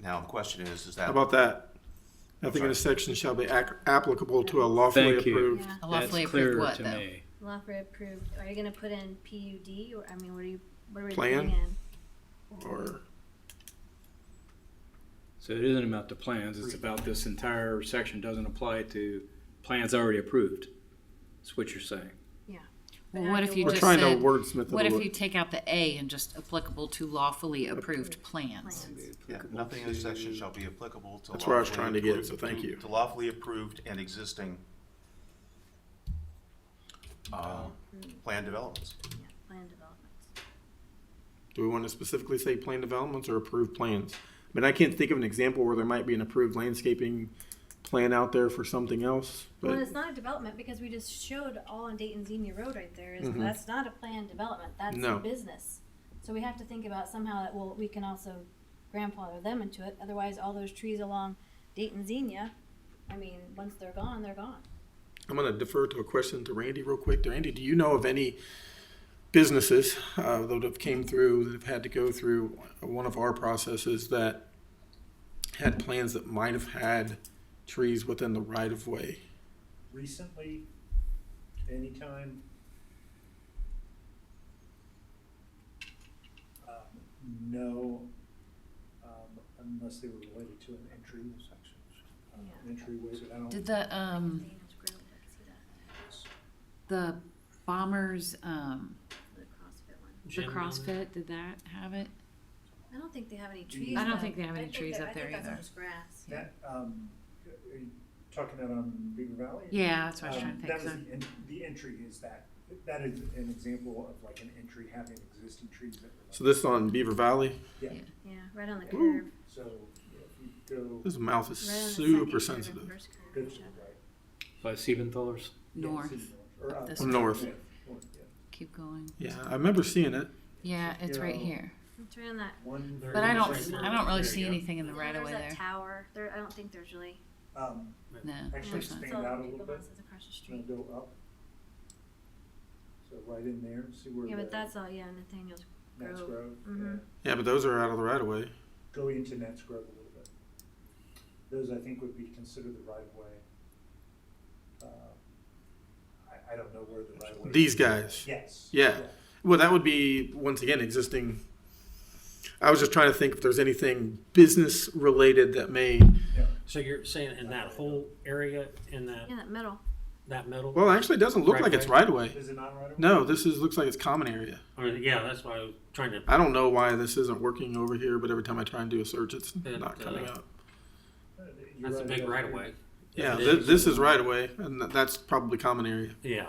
Now, the question is, is How that, about that? Nothing in this section shall be ac- applicable to a lawfully Thank you. approved. Yeah. A That's lawfully approved clearer what, to though? me. Lawful approved, are you gonna put in PUD, or, I mean, what are you, what are we Plan? putting in? Or So it isn't about the plans, it's about this entire section doesn't apply to plans already approved. That's what you're saying. Well, what if you we're just trying to said, wordsmith it a what if little. you take out the A and just applicable to lawfully approved plans? Plans. yeah, nothing in this section shall be applicable to. That's where I was lawfully trying to get, approved- so thank you. To lawfully approved and existing, um, plan developments. Yeah, Plan developments. Do we want to specifically say plan developments or approved plans? I mean, I can't think of an example where there might be an approved landscaping plan out there for something else, Well, but it's not a development, because we just showed all on Dayton Xenia Road right there, is, Mhm. that's not a planned development, that's a No. business. So we have to think about somehow that, well, we can also grandfather them into it, otherwise all those trees along Dayton Xenia, I mean, once they're gone, they're gone. I'm going to defer to a question to Randy real quick. Randy, do you know of any businesses uh, that have came through, that have had to go through one of our processes that had plans that might have had trees within the right of way? recently, anytime. Um, No, um, unless they were related to an entry, um, Yeah. entryway, but I don't. Did the, um, Dana's Grove, I can see that, the bombers, um, the CrossFit one. the CrossFit, did that have it? I don't think they have any trees. I don't though. think they have any I think trees that- up there I think either. that's just grass. That, um, are you talking about on Beaver Valley? Yeah, that's what I was Um, trying to think, That was so- the, en- the entry is that, that is an example of like an entry having existing trees that were. So this is on Beaver Valley. Yeah, right on the Ooh. curve. So yeah, if you go, His mouth is Right on the super second curve and sensitive. first curve. go to the right. By Siebenthaler's? Yeah, North. it's Or up. This Or uh, north. Yeah, north, yeah. Keep going. Yeah, I remember seeing it. Yeah, it's right Yeah. here. It's right on that. One But I don't, thirty. I don't really see There you anything in the Well, right of there's way that there. Tower, there, I don't think there's really. go. Um, No. actually there's not. expand It's all out a the little big bit, houses Across the and street. then go up. So right in there, see where the. Yeah, but that's all, yeah, Nathaniel's Nats Grove. Grove, Mhm. yeah. Yeah, but those are out of the right of way. Go into Nats Grove a little bit. Those I think would be considered the right of way. Uh, I, I don't know where the right of way. These guys. Yes. Yeah. Well, that would be once again existing. I was just trying to think if there's anything business related that may. Yeah. So you're saying in that whole area, in that, Yeah, that middle. that middle? Well, actually, it doesn't look Right like it's away. right away. Is it not right of way? No, this is looks like it's common area. I mean, yeah, that's why I was trying to, I don't know why this isn't working over here, but every time I try and do a search, it's It, not coming uh, up. Uh, you're that's a big about right of there. way. Yeah, it th- is. this is right away, and th- that's probably common area Yeah,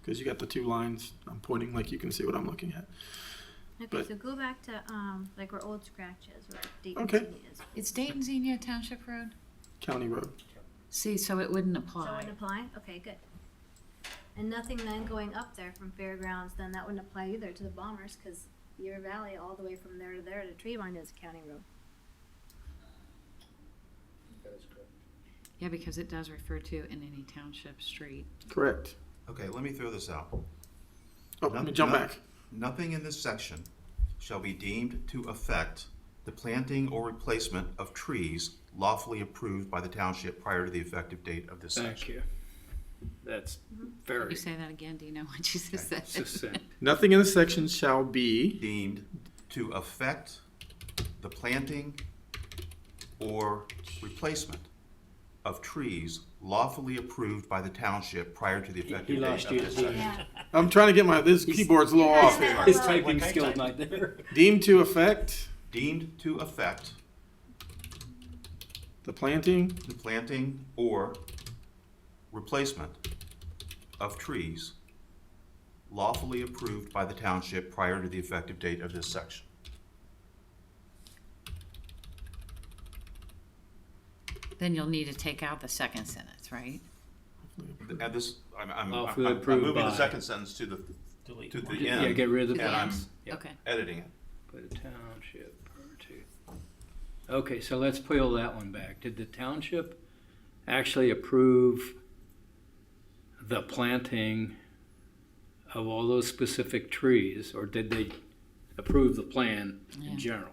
because you got the two lines. I'm pointing like you can see what I'm looking at. Okay, But- so go back to, um, like where Old Scratch is, where Dayton Okay. City is. It's Dayton Xenia Township Road? County road. See, so it wouldn't So it apply. wouldn't apply? Okay, good. And nothing then going up there from Fairgrounds, then that wouldn't apply either to the Bombers, cause Beaver Valley, all the way from there to there to tree line is county road. That is correct. Yeah, because it does refer to in any township street. Correct. Okay, let me throw this out. Oh, let me jump Nothing- back. Nothing in this section shall be deemed to affect the planting or replacement of trees lawfully approved by the township prior to the effective date of this Thank section. you. That's Can Mm-hmm. you very say that again? Do you know what you just said? succinct. Nothing in this section shall be. Deemed to affect the planting or replacement of trees lawfully approved by the township prior to the effective date lost of you. this section. Yeah. I'm trying to get my this keyboard's a little Yeah, off that- here. His Well, typing like I skill's typed. not there. Deemed to affect Deemed to affect the planting the planting or replacement of trees lawfully approved by the township prior to the effective date of this section. Then you'll need to take out the second sentence, right? And this, I'm, I'm, I'm Lawfully I'm approved moving the by- second sentence to the, delete. to the Yeah, get end, rid of the and I'm plans. Yeah. Okay. editing it. By the township prior to. Okay, so let's peel that one back. Did the township actually approve the planting of all those specific trees, or did they approve the plan Yeah. in general?